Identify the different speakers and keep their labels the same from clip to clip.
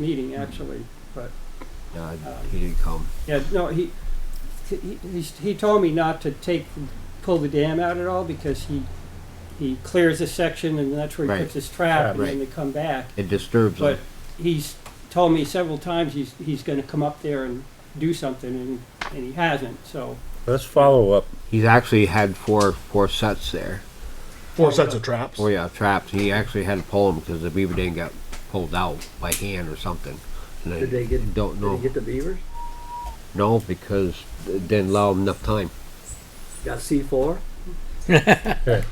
Speaker 1: meeting, actually, but,
Speaker 2: No, I- Uh, he didn't come.
Speaker 1: yeah, no, he, he, he- he told me not to take, pull the dam out at all, because he, he clears a section, and that's where he
Speaker 2: Right.
Speaker 1: puts his trap, and
Speaker 2: Right.
Speaker 1: then they come back.
Speaker 2: It disturbs
Speaker 1: But
Speaker 2: him.
Speaker 1: he's told me several times he's, he's gonna come up there and do something, and, and he hasn't, so.
Speaker 3: Let's follow up.
Speaker 2: He's actually had four four sets there.
Speaker 4: Four sets of traps.
Speaker 2: Four yeah traps. He actually had to pull them because the beaver didn't get pulled out by hand or something. And I
Speaker 5: Did they get-
Speaker 2: Don't
Speaker 5: Did
Speaker 2: know.
Speaker 5: he get the beavers?
Speaker 2: no, because it didn't allow him enough time.
Speaker 5: Got C four?
Speaker 4: Okay.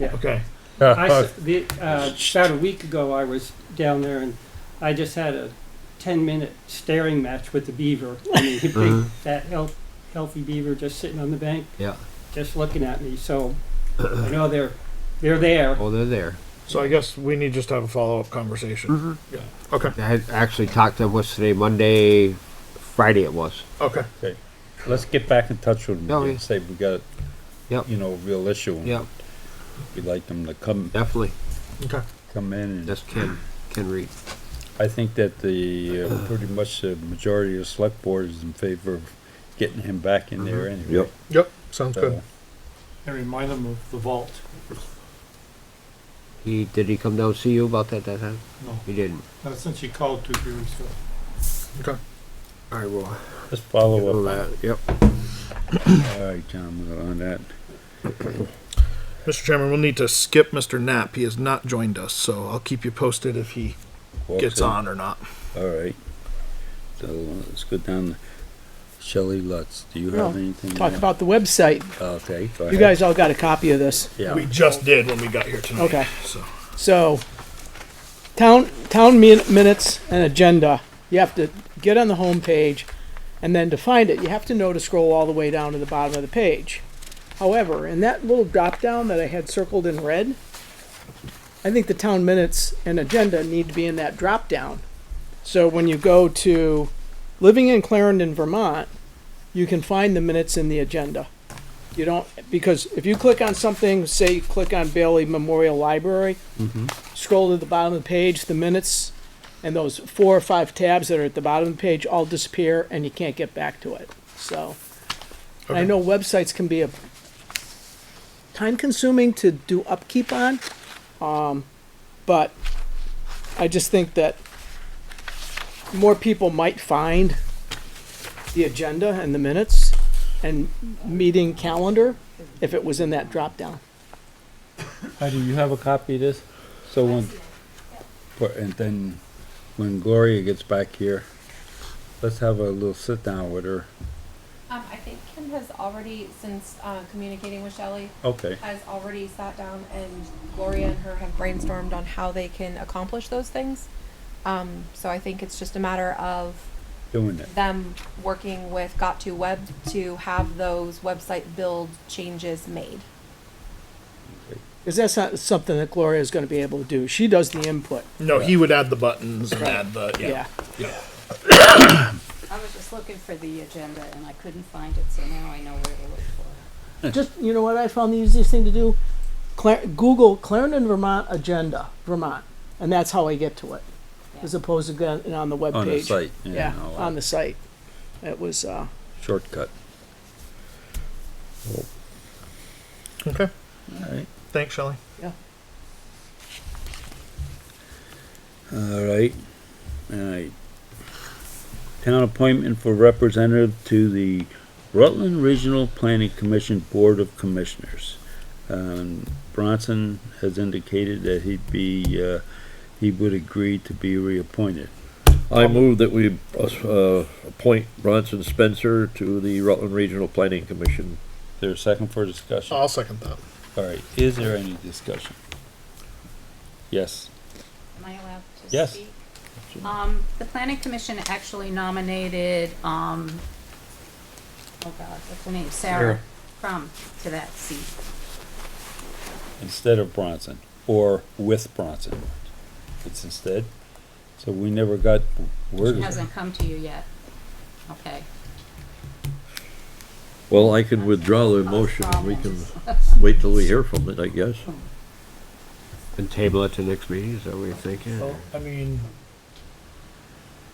Speaker 1: I s the, uh, about a week ago, I was down there and I just had a ten-minute staring match with the beaver. I mean, big,
Speaker 2: Mhm.
Speaker 1: that health, healthy beaver just sitting on the bank,
Speaker 2: Yeah.
Speaker 1: just looking at me. So I know they're they're there.
Speaker 2: Oh, they're there.
Speaker 4: So I guess we need just to have a follow up conversation.
Speaker 3: Mm-hmm.
Speaker 4: Yeah. Okay.
Speaker 2: I had actually talked to him what's today Monday, Friday it was.
Speaker 4: Okay.
Speaker 3: Let's get back in touch with them
Speaker 2: Oh,
Speaker 3: again,
Speaker 2: yeah.
Speaker 3: say we got,
Speaker 2: Yep.
Speaker 3: you know, a real issue. and
Speaker 2: Yeah,
Speaker 3: We'd like them to come,
Speaker 2: definitely.
Speaker 4: Okay.
Speaker 3: come in. and
Speaker 2: That's Ken. Ken Reed.
Speaker 3: I think that the, uh, pretty much the majority of the select board is in favor of getting him back in there anyway.
Speaker 2: Yep.
Speaker 4: Yep. Sounds
Speaker 3: So,
Speaker 4: good.
Speaker 6: And remind them of the vault.
Speaker 2: He did he come down and see you about that that time?
Speaker 6: No,
Speaker 2: He didn't.
Speaker 6: not since you called two years ago.
Speaker 4: Okay.
Speaker 2: I will.
Speaker 3: Let's follow
Speaker 2: that.
Speaker 3: up.
Speaker 2: uh, Yep.
Speaker 3: All right, John, we're on that.
Speaker 4: Mr. Chairman, we'll need to skip Mr. Knapp. He has not joined us, so I'll keep you posted if he
Speaker 3: Walks
Speaker 4: gets
Speaker 3: in.
Speaker 4: on or not.
Speaker 3: All right. So let's go down. Shelley Lutz, do you have
Speaker 7: No,
Speaker 3: anything?
Speaker 7: Talk
Speaker 3: now?
Speaker 7: about the website.
Speaker 3: Okay, go
Speaker 7: You
Speaker 3: ahead.
Speaker 7: guys all got a copy of this.
Speaker 3: Yeah,
Speaker 4: We just did when we got here tonight.
Speaker 7: Okay.
Speaker 4: So
Speaker 7: So, town, town min- minutes and agenda, you have to get on the home page, and then to find it, you have to know to scroll all the way down to the bottom of the page. However, in that little drop down that I had circled in red, I think the town minutes and agenda need to be in that drop down. So when you go to living in Clarendon, Vermont, you can find the minutes in the agenda. You don't, because if you click on something, say you click on Bailey Memorial Library, scroll to the bottom of the page, the minutes, and those four or five tabs that are at the bottom of the page all disappear and you can't get back to it. So, and I
Speaker 4: Okay.
Speaker 7: know websites can be a time consuming to do upkeep on, um, but I just think that more people might find the agenda and the minutes and meeting calendar if it was in that drop down.
Speaker 3: Heidi, you have a copy of this? So when, but- and then when Gloria gets back here, let's have a little sit down with her.
Speaker 8: Um, I think Kim has already, since, uh, communicating with Shelley,
Speaker 3: Okay,
Speaker 8: has already sat down and Gloria and her have brainstormed on how they can accomplish those things. Um, so I think it's just a matter of
Speaker 3: doing it.
Speaker 8: them working with Got to Web to have those website build changes made.
Speaker 7: Because that's not something that Gloria is going to be able to do. She does the input.
Speaker 4: no, he would add the buttons and add the yeah.
Speaker 7: Yeah.
Speaker 9: I was just looking for the agenda and I couldn't find it, so now I know where to look for it.
Speaker 7: Just, you know what I found the easiest thing to do? Clar- Google Clarendon, Vermont agenda, Vermont. And that's how I get to it, as opposed to going on the webpage.
Speaker 3: On the site.
Speaker 7: Yeah,
Speaker 3: and all
Speaker 7: on
Speaker 3: that.
Speaker 7: the site. It was, uh,
Speaker 3: Shortcut.
Speaker 4: Okay.
Speaker 3: All right.
Speaker 4: Thanks, Shelley.
Speaker 3: All right, all right. Town appointment for representative to the Rutland Regional Planning Commission Board of Commissioners. Um, Bronson has indicated that he'd be, uh, he would agree to be reappointed.
Speaker 10: I move that we uh, appoint Bronson Spencer to the Rutland Regional Planning Commission.
Speaker 3: Is there a second for discussion?
Speaker 4: I'll second that.
Speaker 3: All right, is there any discussion? Yes.
Speaker 9: Am I allowed to speak?
Speaker 3: Yes.
Speaker 9: Um, the planning commission actually nominated, um, oh God, what's her name, Sarah Crum to that seat.
Speaker 3: instead of Bronson, or with Bronson. It's instead. So we never got word
Speaker 9: She
Speaker 3: of it.
Speaker 9: hasn't come to you yet. Okay.
Speaker 10: Well, I can withdraw the motion, and we can wait till we hear from it, I guess.
Speaker 5: Oh.
Speaker 2: And table it to next meeting, is that what you're thinking?
Speaker 4: I mean,